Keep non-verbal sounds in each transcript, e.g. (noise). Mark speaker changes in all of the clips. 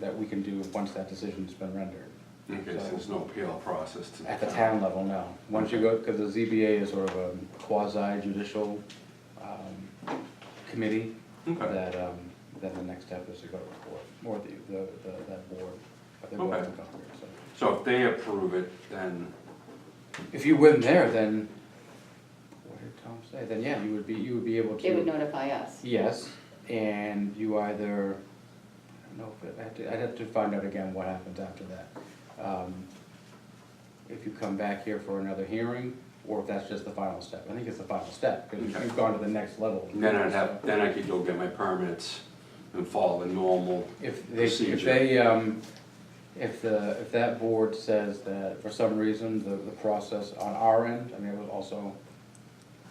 Speaker 1: that we can do once that decision's been rendered.
Speaker 2: Okay, so there's no appeal process to.
Speaker 1: At the town level, no. Once you go, because the ZBA is sort of a quasi judicial um, committee,
Speaker 2: Okay,
Speaker 1: that, um, then the next step is to go to court, or the, the, the- that board, but they're both
Speaker 2: Okay.
Speaker 1: in Congress, so.
Speaker 2: so if they approve it, then,
Speaker 1: If you win there, then, what did Tom say, then yeah, you would be, you would be able to.
Speaker 3: They would notify us.
Speaker 1: Yes, and you either, I don't know, if it- I have to, I'd have to find out again what happens after that. Um, If you come back here for another hearing, or if that's just the final step, I think it's the final step, because
Speaker 2: Okay.
Speaker 1: you've gone to the next level.
Speaker 2: then I'd have, then I could go get my permits and follow the normal.
Speaker 1: If they, if
Speaker 2: Procedure.
Speaker 1: they, um, if the, if that board says that for some reason, the, the process on our end, I mean, it was also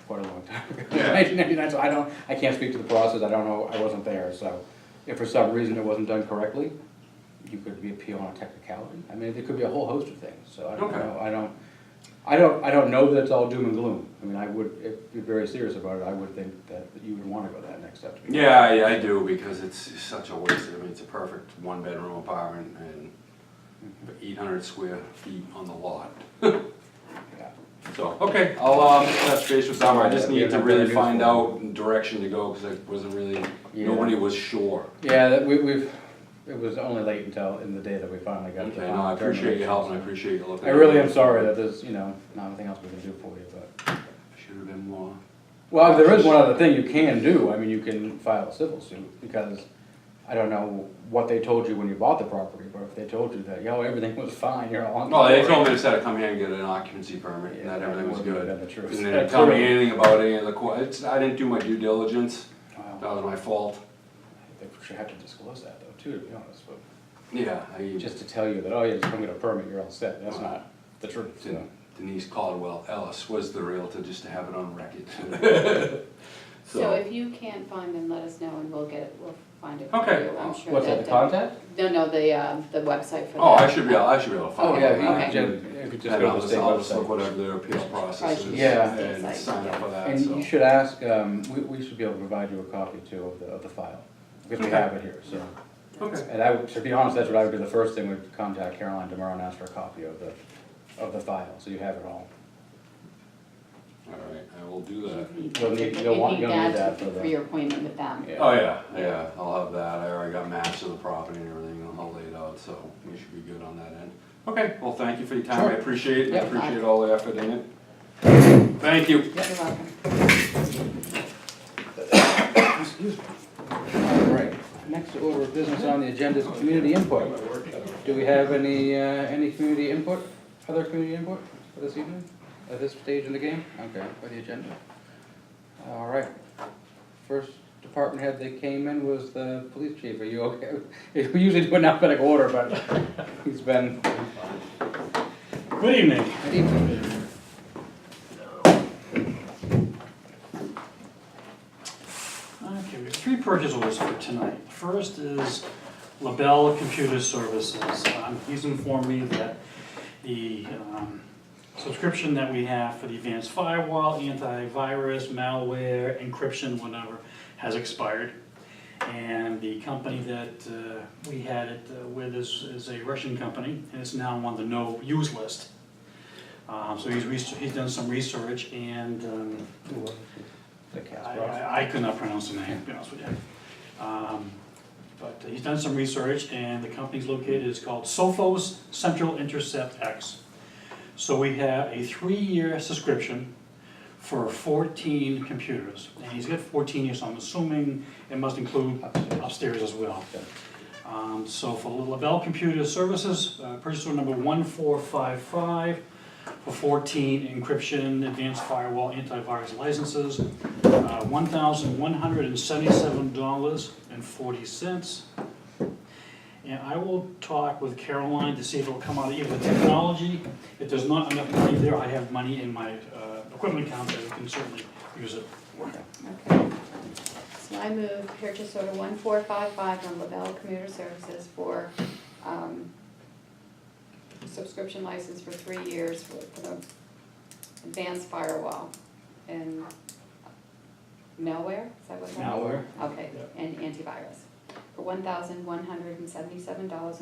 Speaker 1: quite a long time ago.
Speaker 2: Yeah.
Speaker 1: Nineteen ninety-nine, so (laughs) I don't, I can't speak to the process, I don't know, I wasn't there, so if for some reason it wasn't done correctly, you could be appealing on a technicality, I mean, there could be a whole host of things, so I don't
Speaker 2: Okay.
Speaker 1: know, I don't, I don't, I don't know that it's all doom and gloom, I mean, I would, if you're very serious about it, I would think that you would wanna go that next step. to be-
Speaker 2: Yeah, I, I do, because it's such a waste, I mean, it's a perfect one-bedroom apartment and eight hundred square feet on the lot.
Speaker 1: Yeah.
Speaker 2: So, okay, I'll, um, touch base with Summer, I just
Speaker 1: Yeah,
Speaker 2: need to
Speaker 1: that'd
Speaker 2: really
Speaker 1: be
Speaker 2: find
Speaker 1: beautiful.
Speaker 2: out direction to go, cause I wasn't really,
Speaker 1: Yeah.
Speaker 2: nobody was sure.
Speaker 1: Yeah, that we, we've, it was only late until in the day that we finally got the.
Speaker 2: Okay, no, I appreciate your help and I appreciate your looking.
Speaker 1: I really am sorry that there's, you know, not nothing else we can do for you, but,
Speaker 2: Should've been more.
Speaker 1: well, there is one other thing you can do, I mean, you can file a civil suit, because I don't know what they told you when you bought the property, but if they told you that, yo, everything was fine, you're on.
Speaker 2: No, they told me instead of come here and get an occupancy permit, and that everything was good.
Speaker 1: That's
Speaker 2: And
Speaker 1: the truth.
Speaker 2: they didn't tell me anything about any of the, qu- it's, I didn't do my due diligence, that
Speaker 1: Wow,
Speaker 2: was my fault.
Speaker 1: They should have to disclose that though, too, to be honest, but,
Speaker 2: Yeah, I,
Speaker 1: just to tell you that, oh, yeah, just come get a permit, you're all set, that's not the truth, so.
Speaker 2: Denise Caldwell Ellis was the realtor, just to have it on
Speaker 1: (laughs)
Speaker 2: record.
Speaker 3: So if you can't find them, let us know and we'll get it, we'll find it. for
Speaker 2: Okay.
Speaker 3: you. I'm sure
Speaker 1: What's that, the contact?
Speaker 3: No, no, the, um, the website for that.
Speaker 2: Oh, I should be, I should be able to
Speaker 1: Oh,
Speaker 2: find it.
Speaker 1: yeah, you
Speaker 3: Okay.
Speaker 1: could ju- you could just
Speaker 2: And
Speaker 1: go to
Speaker 2: I'll
Speaker 1: the
Speaker 2: just,
Speaker 1: state
Speaker 2: I'll just look
Speaker 1: website.
Speaker 2: whatever their appeal process is.
Speaker 1: Yeah.
Speaker 2: And sign up for that,
Speaker 1: And you
Speaker 2: so.
Speaker 1: should ask, um, we, we should be able to provide you a copy too of the, of the file, because we
Speaker 2: Okay.
Speaker 1: have it here, so.
Speaker 2: Okay,
Speaker 1: And I, would- to be honest, that's what I would do, the first thing would contact Caroline tomorrow and ask for a copy of the, of the file, so you have it all.
Speaker 2: all right, I will do that.
Speaker 1: You'll need- you'll want-
Speaker 3: If
Speaker 1: you'll need
Speaker 3: that's
Speaker 1: that for the-
Speaker 3: For your appointment with them.
Speaker 1: Yeah.
Speaker 2: Oh, yeah, yeah, I'll have that, I already got maps of the property and everything all laid out, so we should be good on that end. Okay, well, thank you for your time, I
Speaker 1: Sure.
Speaker 2: appreciate it, I
Speaker 1: Yeah.
Speaker 2: appreciate all the effort in it. Thank you.
Speaker 3: You're welcome.
Speaker 1: Excuse me. All right, next order of business on the agenda is community input. Do we have any, uh, any community input, other community input for this evening, at this stage in the game? Okay, for the agenda. All right. First department head that came in was the police chief, are you okay? (laughs) We usually do an alphabetic order, but he's been,
Speaker 4: Good evening.
Speaker 1: good evening.
Speaker 4: Okay, we have three purchase orders for tonight. The First is LaBelle Computer Services. Um, He's informed me that the um, subscription that we have for the advanced firewall, antivirus, malware, encryption, whatever, has expired. And the company that uh, we had it uh, with is, is a Russian company, and it's now on the no-use list. Um, So he's, res- he's done some research, and um,
Speaker 1: The cast
Speaker 4: I-
Speaker 1: box.
Speaker 4: I, I could not pronounce the name, to be honest with you. Um, But he's done some research, and the company's located, it's called Sophos Central Intercept X. So we have a three-year subscription for fourteen computers, and he's got fourteen here, so I'm assuming it must include upstairs as well.
Speaker 1: Yeah.
Speaker 4: Um, So for LaBelle Computer Services, uh, purchase order number one four five five for fourteen encryption, advanced firewall, antivirus licenses, uh, one thousand one hundred and seventy-seven dollars and forty cents. And I will talk with Caroline to see if it'll come out of either technology. If there's not enough money there, I have money in my uh, equipment account that we can certainly use it.
Speaker 3: Okay. So I move purchase order one four five five on Lavelle Commuter Services for, um, subscription license for three years for for the advanced firewall and malware, is that what that?
Speaker 4: Malware.
Speaker 3: Okay,
Speaker 4: Yep.
Speaker 3: and antivirus. for one thousand one hundred and seventy-seven dollars